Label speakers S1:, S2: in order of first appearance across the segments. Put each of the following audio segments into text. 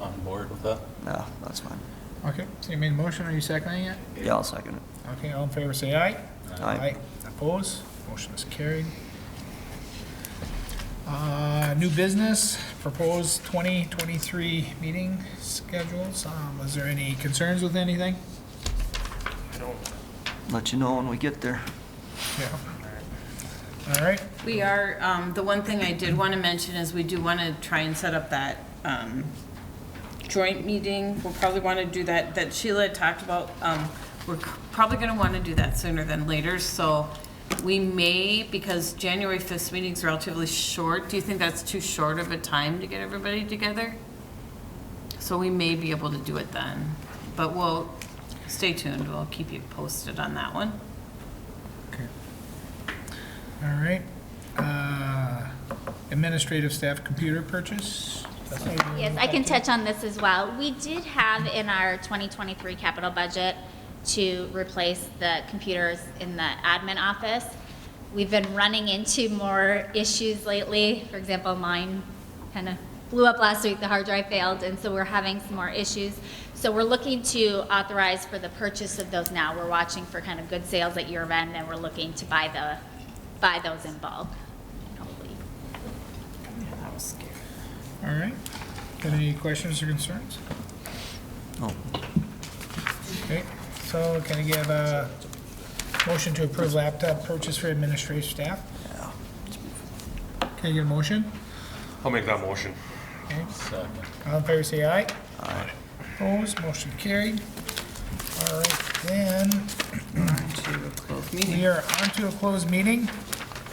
S1: on board with that?
S2: No, that's fine.
S3: Okay, so you made a motion, are you seconding it?
S2: Yeah, I'll second it.
S3: Okay, all in favor, say aye.
S2: Aye.
S3: Oppose? Motion is carried. Uh, New business, proposed 2023 meeting schedules. Um, Was there any concerns with anything?
S2: Let you know when we get there.
S3: Yeah. All right,
S4: We are, um, the one thing I did want to mention is we do want to try and set up that um, joint meeting. We'll probably want to do that, that Sheila had talked about. Um, We're c- probably going to want to do that sooner than later, so we may, because January 5th meeting's relatively short. Do you think that's too short of a time to get everybody together? So we may be able to do it then, but we'll, stay tuned, we'll keep you posted on that one.
S3: all right. Uh, Administrative staff computer purchase? That's what we-
S5: Yes, I can touch on this as well. We did have in our 2023 capital budget to replace the computers in the admin office. We've been running into more issues lately. For example, mine kind of blew up last week, the hard drive failed, and so we're having some more issues. So we're looking to authorize for the purchase of those now. We're watching for kind of good sales at year end, and we're looking to buy the, buy those in bulk. Hopefully,
S3: All right. Got any questions or concerns?
S2: No.
S3: Okay, so can I give a motion to approve laptop purchase for administrative staff? Can I get a motion?
S6: I'll make that motion.
S3: Okay,
S1: Second.
S3: all in favor, say aye. Aye. Opposed, motion carried. All right, then,
S4: Both
S3: we
S4: meetings
S3: are on to a closed meeting,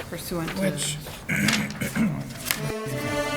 S4: pursuant to.
S3: which